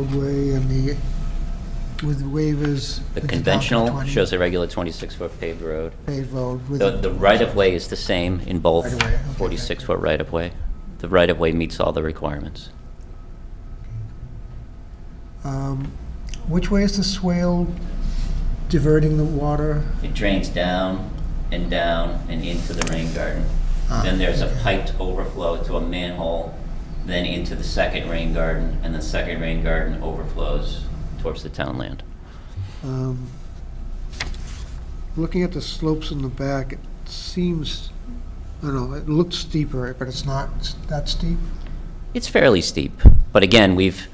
roadway and the, with waivers. The with conventional 2020 shows a regular 26-foot paved road. Paved road with. The, the right-of-way is the same in both Right-of-way, okay, thank you. 46-foot right-of-way. The right-of-way meets all the requirements. Um, Which way is the swale diverting the water? It drains down and down and into the rain garden. Ah, Then there's a okay. piped overflow to a manhole, then into the second rain garden, and the second rain garden overflows towards the townland. Um, Looking at the slopes in the back, it seems, I don't know, it looks steeper, but it's not s- that steep. It's fairly steep, but again, we've,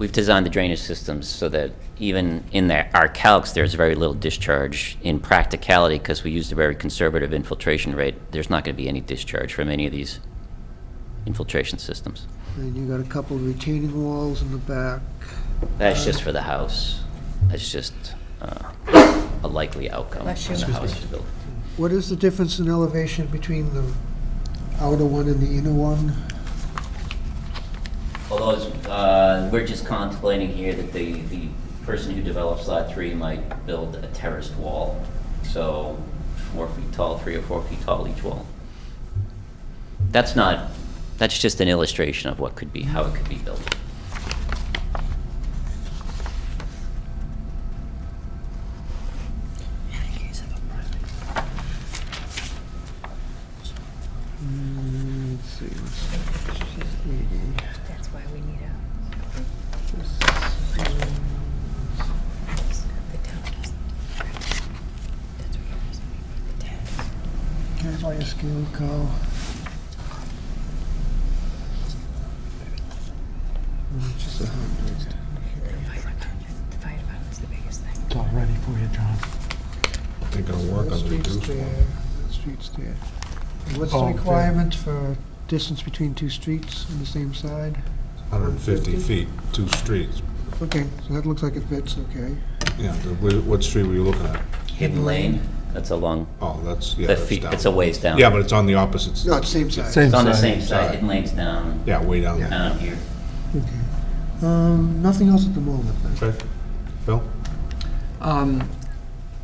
we've designed the drainage systems so that even in their, our calcs, there's very little discharge in practicality because we used a very conservative infiltration rate. There's not going to be any discharge from any of these infiltration systems. And you got a couple of retaining walls in the back. Uh, That's just for the house. That's just uh, a likely outcome Bless when you. the house is built. What is the difference in elevation between the outer one and the inner one? Although, it's, uh, we're just contemplating here that the, the person who develops lot three might build a terraced wall. So four feet tall, three or four feet tall each wall. That's not, that's just an illustration of what could be, how it could be built. Mm, Let's see, what's eighty? That's why we need a. Can I buy a scale, Carl? Mm, Just a hundred. It's all ready for you, John. They're gonna work That on the street's uh, reduced there, one. that street's there. And What's the Oh, okay. requirement for distance between two streets on the same side? 150 feet, two streets. Okay, so that looks like it fits, okay. Yeah, the- wh- what street were you looking at? Hidden lane, that's a long, Oh, that's, yeah, the that's feet, down. it's a ways down. Yeah, but it's on the opposite, No, s- it's same side. Same It's on the side. same side, hidden lane's down, yeah, way down there. down here. Okay. Um, nothing else at the moment, then? Okay. Phil? Um,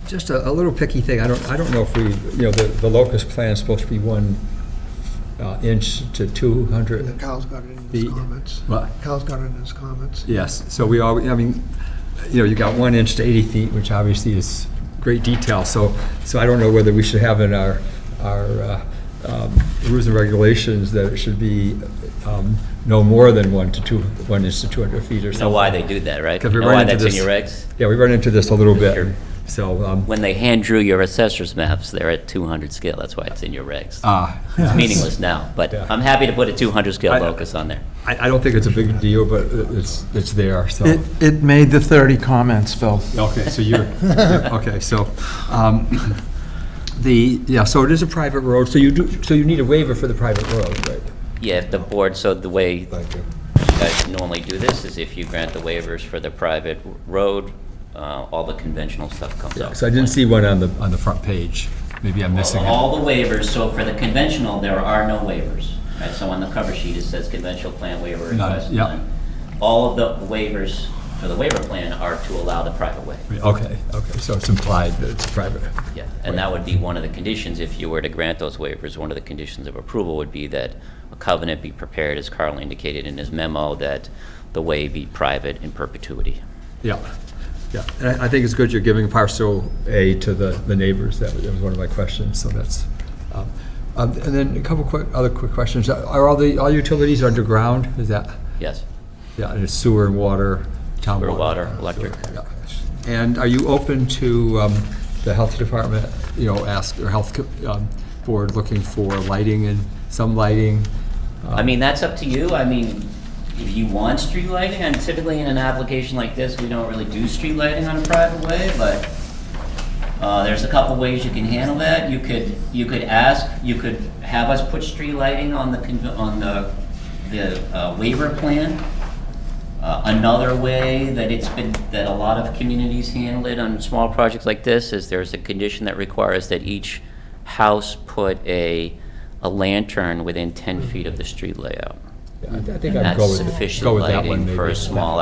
Just a, a little picky thing, I don't, I don't know if we, you know, the, the locust plan is supposed to be one uh, inch to two Yeah, hundred. Kyle's got it in his The- comments. What? Kyle's got it in his comments. Yes, so we all, I mean, you know, you got one inch to eighty feet, which obviously is great detail, so, so I don't know whether we should have in our, our uh, um, rules and regulations that it should be um, no more than one to two, one inch to two hundred feet or You something. know why they do that, right? 'Cause we Know run why into that's in this- your regs? Yeah, we run into this a little Sure. bit, so, um, When they hand drew your assessor's maps, they're at 200 scale, that's why it's in your regs. ah. It's meaningless now, but Yeah. I'm happy to put a 200 scale I- locus on there. I, I don't think it's a big deal, but it- it's, it's there, so. It, it made the 30 comments, Phil. Okay, so you're, you're- okay, so, um, the, yeah, so it is a private road, so you do, so you need a waiver for the private road, right? Yeah, if the board, so the way you Thank you. guys normally do this is if you grant the waivers for the private road, uh, all the conventional stuff comes out. So I didn't see one on the, on the front page. Maybe I'm missing it. All the waivers, so for the conventional, there are no waivers. Right, so on the cover sheet, it says conventional plan waiver Got it, request. yeah. none. All of the waivers for the waiver plan are to allow the private way. Okay, okay, so it's implied that it's private. Yeah, and that would be one of the conditions, if you were to grant those waivers, one of the conditions of approval would be that a covenant be prepared, as Carl indicated in his memo, that the way be private in perpetuity. Yeah, yeah. And I, I think it's good you're giving parcel A to the, the neighbors. That was that was one of my questions, so that's. um, um, And then a couple quick, other quick questions. Are all the, all utilities underground? Is that, Yes, yeah, and it's sewer and water, town Sewer, water? water, electric. Yeah. And are you open to um, the health department, you know, ask, or health co- um, board looking for lighting and some lighting? Um, I mean, that's up to you, I mean, if you want street lighting, and typically in an application like this, we don't really do street lighting on a private way, but uh, there's a couple ways you can handle that, you could, you could ask, you could have us put street lighting on the, conv- on the, the uh, waiver plan. Uh, Another way that it's been, that a lot of communities handle it on small projects like this is there's a condition that requires that each house put a, a lantern within 10 feet of the street layout. Um, I think I'd And go that's with- sufficient go with that one lighting for maybe. a small